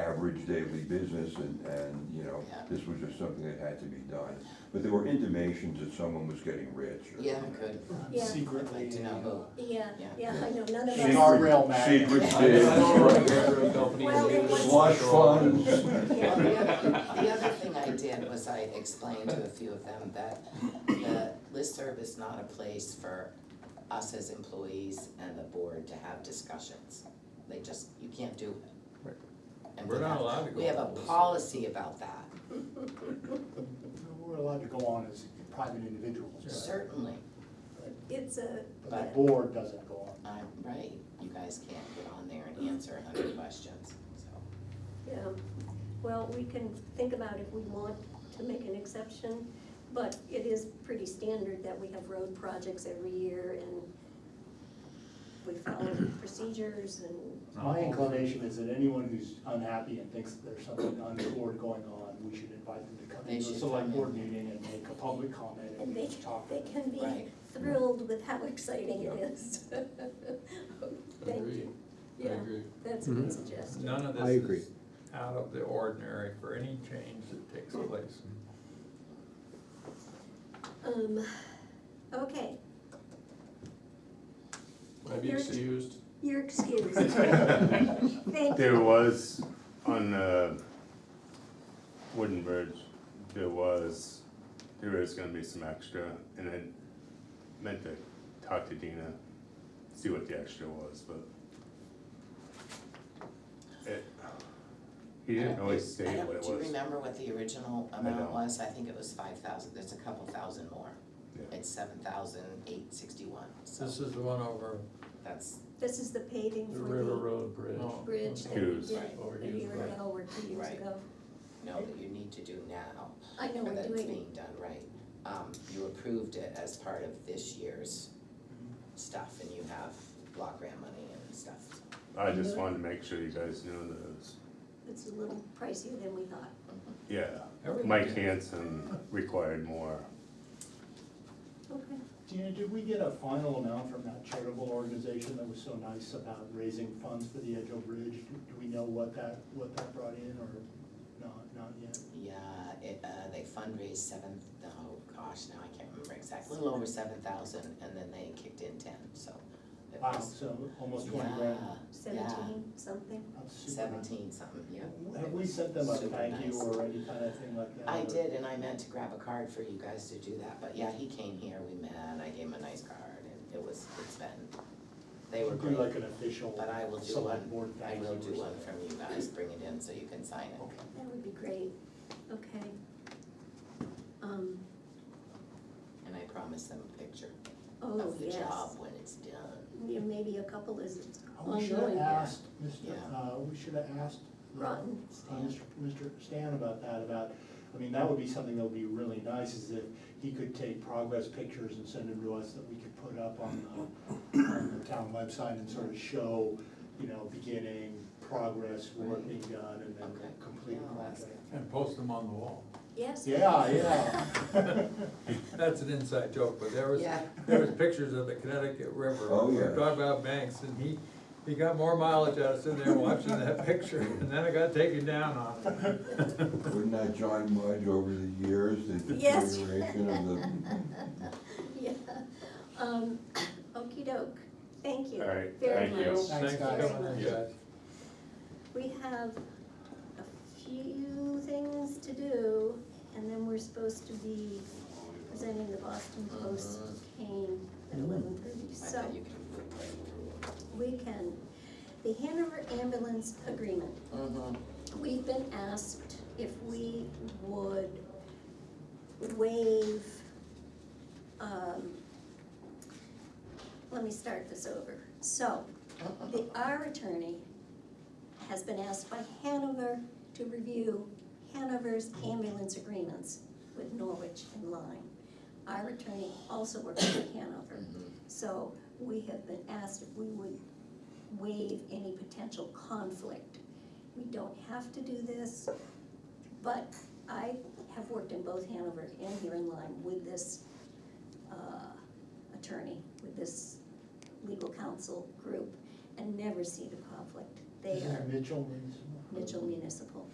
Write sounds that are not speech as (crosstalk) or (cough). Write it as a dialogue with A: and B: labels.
A: average daily business and, and, you know,
B: Yeah.
A: this was just something that had to be done. But there were intimations that someone was getting rich or.
B: Yeah, good.
C: Yeah.
B: I'd like
D: secretly.
B: to know
C: Yeah,
B: Yeah.
C: yeah, I know, none of
A: Secret-
C: us.
D: Guardrail match.
A: Secret
B: Yeah.
A: bids,
C: Well, it was-
A: slush funds.
B: who. Well, the other, the other thing I did was I explained to a few of them that the listserv is not a place for us as employees and the board to have discussions. They just, you can't do it.
E: Right.
B: And we
F: We're not
B: have,
F: allowed to go.
B: we have a
F: on this.
B: policy about that,
D: We're allowed to go on as private individuals,
B: certainly.
C: It's a,
D: but the board doesn't go on.
B: I'm right, you guys can't get on there and answer a hundred questions, so.
C: yeah, well, we can think about if we want to make an exception, but it is pretty standard that we have road projects every year and we follow procedures and,
D: My inclination is that anyone who's unhappy and thinks there's something untoward going on, we should invite them to come
B: They
D: to
B: should
D: a select
B: come
D: board meeting and make a public comment
C: and they,
D: and talk.
C: they can be
B: Right.
C: thrilled with how exciting it is. (laughs) Thank
F: Agreed.
C: you,
F: I
C: yeah,
F: agree.
C: that's a good
E: Mhm.
C: suggestion.
F: None of
E: I
F: this
E: agree.
F: is out of the ordinary for any change that takes place.
C: Um, okay,
F: Maybe
C: You're-
F: excused.
C: you're
D: (laughs)
C: excused. Thank you.
G: (laughs) There was on uh, Wooden Bridge, there was, there is gonna be some extra, and I meant to talk to Dina, see what the extra was, but. it- He didn't always
B: I
G: say
B: don't-
G: what it
B: Do you
G: was.
B: remember what the original amount
G: don't.
B: was? I think it was five thousand, there's a couple thousand more.
G: Yeah.
B: It's seven thousand eight sixty-one, so
F: This is the one over
B: that's,
C: This is the paving
H: The
C: for the.
H: River Road Bridge.
F: oh,
C: bridge that we
G: Hughes.
C: did
H: Over
C: a
H: Hughes
C: year
H: Road.
C: ago or two years
B: Right.
C: ago.
B: no, that you need to do now,
C: I know
B: or
C: we're
B: that it's
C: doing,
B: being done right. Um, you approved it as part of this year's stuff, and you have block grant money and stuff, so.
G: I just wanted to make sure you guys knew those.
C: it's a little pricier than we thought.
G: Mm-hmm. Yeah,
F: everything.
G: Mike Hanson required more.
C: Okay.
D: Dina, did we get a final amount from that charitable organization that was so nice about raising funds for the Edgeo Bridge? Do do we know what that, what that brought in or not, not yet?
B: Yeah, it, uh, they fundraised seven, oh gosh, now I can't remember exactly, a little over seven thousand, and then they kicked in ten, so. it
D: Wow,
B: was-
D: Um, so almost twenty grand.
B: Yeah,
C: Seventeen, something.
D: That's super nice.
B: Seventeen something, yeah.
D: Have we sent them a
B: Super
D: thank you
B: nice.
D: or any kind of thing like that?
B: I
D: or-
B: did, and I meant to grab a card for you guys to do that, but yeah, he came here, we met, I gave him a nice card, and it was, it's been, they were
D: Do
B: great.
D: like an official
B: But I will do
D: select
B: one,
D: board
B: I
D: thank you
B: will
D: or
B: do one
D: something.
B: from you guys, bring it in so you can sign it.
D: Okay.
C: That would be great. Okay. Um,
B: And I promise them a picture
C: oh,
B: of the
C: yes.
B: job when it's done.
C: Yeah, Maybe a couple is
D: Oh, We should have
C: ongoing.
D: asked, Mr.,
B: Yeah.
D: uh, we should have asked uh, uh,
C: Rotten.
B: Stan.
D: Mr. Mr. Stan about that, about, I mean, that would be something that would be really nice, is if he could take progress pictures and send them to us that we could put up on the, on the town website and sort of show, you know, beginning, progress, work
B: Right.
D: being done, and then
B: Okay.
D: complete
B: Yeah, I'll ask
D: project.
F: And post them on the wall.
C: Yes.
D: Yeah,
C: (laughs)
B: (laughs)
D: yeah.
F: That's an inside joke, but there was,
B: Yeah.
F: there was pictures of the Connecticut River.
A: Oh,
F: We were
A: yeah.
F: Talking about Banks, and he, he got more mileage out of sitting there watching that (laughs) picture, and then it got taken down on him.
A: Wouldn't that John Mudge over the years, the
C: Yes.
A: deterioration of the
C: Yeah. Um, (coughs) okey doke. Thank you.
G: All right,
C: Very
G: thank you.
C: much.
D: Thanks,
F: for
D: guys.
F: coming in, guys.
C: We have a few things to do, and then we're supposed to be presenting the Boston Post cane at eleven thirty,
B: Uh-huh. I
C: so
B: bet you can put it
C: we can. The Hanover ambulance agreement,
B: right through. Mm-hmm.
C: we've been asked if we would waive, um, let me start this over. So, the, our attorney has been asked by Hanover to review Hanover's ambulance agreements with Norwich and Lyme. Our attorney also works with Hanover,
B: Mm-hmm.
C: so we have been asked if we would waive any potential conflict. We don't have to do this, but I have worked in both Hanover and here in Lyme with this uh, attorney, with this legal counsel group, and never seen a conflict.
D: They
I: This is
D: are
I: Mitchell. Municipal.
D: Mitchell Municipal.